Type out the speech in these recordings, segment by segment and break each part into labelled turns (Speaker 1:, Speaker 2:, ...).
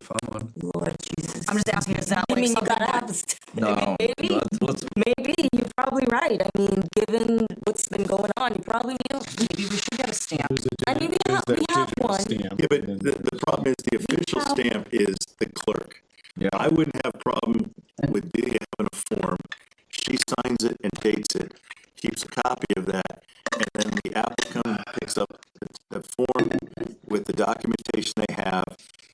Speaker 1: fun one.
Speaker 2: Lord Jesus.
Speaker 3: I'm just asking, is that
Speaker 2: I
Speaker 3: like
Speaker 2: mean, you gotta
Speaker 3: something?
Speaker 2: have. a st-
Speaker 1: No,
Speaker 2: Maybe.
Speaker 1: let's, let's,
Speaker 2: Maybe you're probably right. I mean, given what's been going on, you probably do.
Speaker 3: Maybe we should get a stamp.
Speaker 4: There's a
Speaker 2: I mean, we
Speaker 4: digital-
Speaker 2: have-
Speaker 4: there's
Speaker 2: we
Speaker 4: that
Speaker 2: have
Speaker 4: digital
Speaker 2: one.
Speaker 4: stamp,
Speaker 5: Yeah, but
Speaker 4: and then-
Speaker 5: the, the problem is the official stamp is the clerk.
Speaker 1: yeah,
Speaker 5: I wouldn't have problem with Delia having a form. She signs it and dates it, keeps a copy of that, and then the applicant picks up the, the form with the documentation they have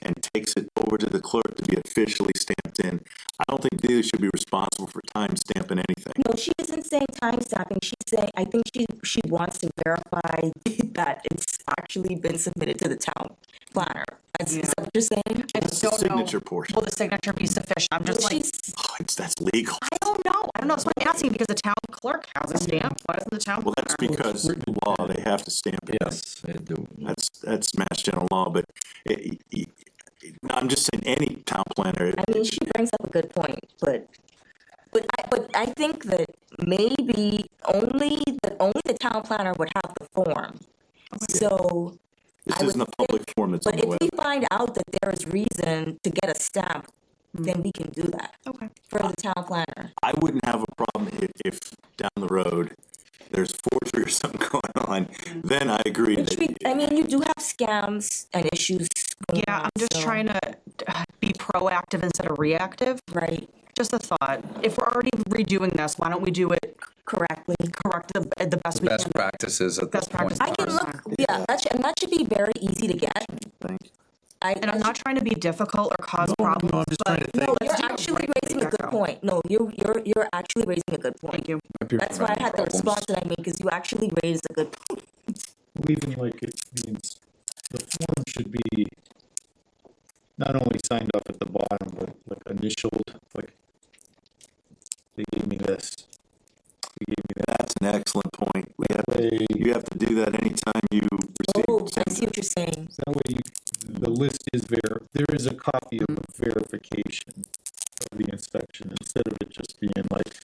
Speaker 5: and takes it over to the clerk to be officially stamped in. I don't think Delia should be responsible for time stamping anything.
Speaker 2: No, she isn't saying time stamping. She's saying, I think she, she wants to verify that it's actually been submitted to the town planner. That's is that what you're saying.
Speaker 3: I just
Speaker 5: The
Speaker 3: don't know.
Speaker 5: signature portion,
Speaker 3: Will the signature be sufficient? I'm just like,
Speaker 2: She's,
Speaker 5: oh, it's, that's legal.
Speaker 3: I don't know. I don't know. That's what I'm asking because the town clerk has a stamp. Why doesn't the town?
Speaker 5: Well, that's
Speaker 3: clerk?
Speaker 5: because the law, they have to stamp it.
Speaker 1: yes, I do.
Speaker 6: Uh,
Speaker 5: That's, that's mass general law, but it, it, it- I'm just saying any town planner. it-
Speaker 2: I mean, she brings up a good point, but, but I, but I think that maybe only, the only the town planner would have the form. So,
Speaker 5: This
Speaker 2: I
Speaker 5: isn't a
Speaker 2: would
Speaker 5: public forum that's on
Speaker 2: but
Speaker 5: the
Speaker 2: if
Speaker 5: web.
Speaker 2: we find out that there is reason to get a stamp, then we can do that
Speaker 3: Okay.
Speaker 2: for the town planner.
Speaker 5: I wouldn't have a problem if, if down the road, there's forgery or something going on, then I agree
Speaker 2: Which
Speaker 5: that
Speaker 2: we, I mean, you do have scams and issues. going
Speaker 3: Yeah,
Speaker 2: on,
Speaker 3: I'm just
Speaker 2: so-
Speaker 3: trying to uh, be proactive instead of reactive.
Speaker 2: Right,
Speaker 3: Just a thought. If we're already redoing this, why don't we do it
Speaker 2: correctly.
Speaker 3: correct the, uh, the best we can?
Speaker 1: Best practices at this
Speaker 3: Best
Speaker 1: point.
Speaker 3: practice.
Speaker 2: I can look, yeah, that should, and that should be very easy to get. I,
Speaker 3: And I'm not trying to be difficult or cause problems.
Speaker 1: I'm just trying to
Speaker 3: but-
Speaker 1: think.
Speaker 2: no,
Speaker 3: Let's do
Speaker 2: you're
Speaker 3: it
Speaker 2: actually
Speaker 3: right,
Speaker 2: raising a good
Speaker 3: Rebecca.
Speaker 2: point. No, you're, you're, you're actually raising a good point.
Speaker 3: Thank you.
Speaker 1: Might be
Speaker 2: That's why I
Speaker 1: preventing
Speaker 2: had the
Speaker 1: problems.
Speaker 2: response that I made, because you actually raised a good point.
Speaker 4: Well, Even like it means, the form should be not only signed off at the bottom, but like initialed, like, they gave me this, they gave me that,
Speaker 5: that's an excellent point. We have,
Speaker 4: way,
Speaker 5: you have to do that anytime you
Speaker 2: Oh,
Speaker 5: receive.
Speaker 2: I see what you're saying.
Speaker 4: that way you, the list is ver, there is a copy of a verification of the inspection, instead of it just being like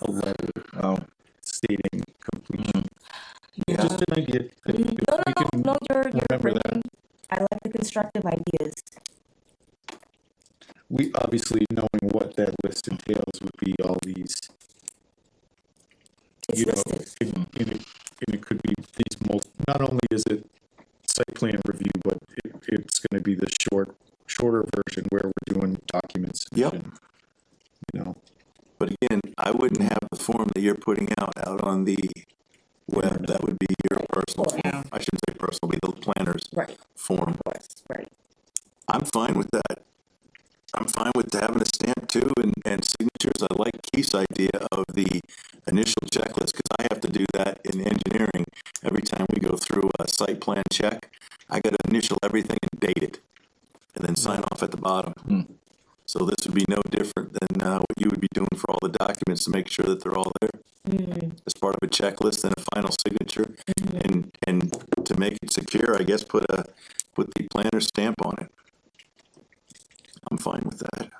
Speaker 4: a letter
Speaker 1: Oh,
Speaker 4: stating completion.
Speaker 2: Mm-hmm. Yeah. Mm-hmm.
Speaker 4: Just an idea. If- if
Speaker 2: No,
Speaker 4: we
Speaker 2: no,
Speaker 4: can-
Speaker 2: no, no, you're, you're
Speaker 4: remember that.
Speaker 2: bringing, I like the constructive ideas.
Speaker 4: we obviously knowing what that list entails would be all these,
Speaker 2: It's
Speaker 4: you know,
Speaker 2: listed.
Speaker 4: and and it, and it could be these mul, not only is it site plan review, but it, it's gonna be the short, shorter version where we're doing documents.
Speaker 5: Yep.
Speaker 4: You know,
Speaker 5: But again, I wouldn't have the form that you're putting out, out on the web. That would be your personal,
Speaker 2: Right.
Speaker 5: form. I shouldn't say personal, be the planner's
Speaker 2: Right, of
Speaker 5: form.
Speaker 2: course, right.
Speaker 5: I'm fine with that. I'm fine with having a stamp too and, and signatures. I like Keith's idea of the initial checklist because I have to do that in engineering. Every time we go through a site plan check, I got to initial everything and date it and then sign off at the bottom. So this would be no different than uh, what you would be doing for all the documents to make sure that they're all there as part of a checklist and a final signature. And, and to make it secure, I guess, put a, put the planner stamp on it. I'm fine with that.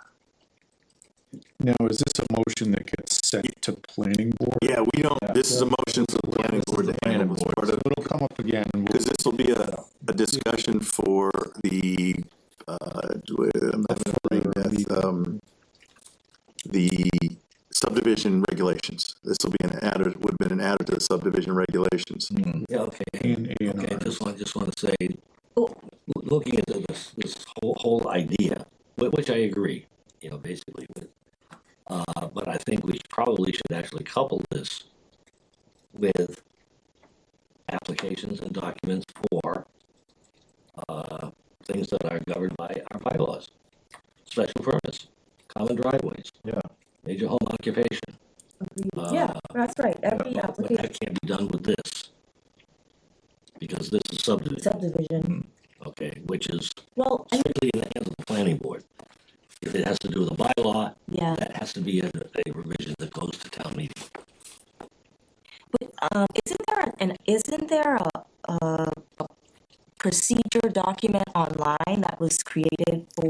Speaker 4: now, is this a motion that gets sent to planning board?
Speaker 5: Yeah, we don't, this is a motion for the planning board to handle as part
Speaker 4: So
Speaker 5: of,
Speaker 4: it'll come up again, and we'll
Speaker 5: because this will be a, a discussion for the, uh, I'm not remembering that, um, the subdivision regulations. This will be an added, would have been an added to the subdivision regulations.
Speaker 6: Yeah, okay.
Speaker 4: in A and
Speaker 6: Okay,
Speaker 4: R.
Speaker 6: I just want, just want to say,
Speaker 2: Oh,
Speaker 6: loo- looking at this, this whole, whole idea, whi- which I agree, you know, basically with. Uh, but I think we probably should actually couple this with applications and documents for, uh, things that are governed by our bylaws. Special permits, common driveways.
Speaker 4: Yeah.
Speaker 6: Major home occupation.
Speaker 2: yeah,
Speaker 6: Uh,
Speaker 2: that's right, every
Speaker 6: But but
Speaker 2: application
Speaker 6: that can't be done with this. Because this is subdivision.
Speaker 2: subdivision.
Speaker 6: okay, which is
Speaker 2: Well, I,
Speaker 6: strictly in the hands of the planning board. If it has to do with a bylaw,
Speaker 2: yeah,
Speaker 6: that has to be a, a revision that goes to town meeting.
Speaker 2: but, um, isn't there an, isn't there a, a a procedure document online that was created for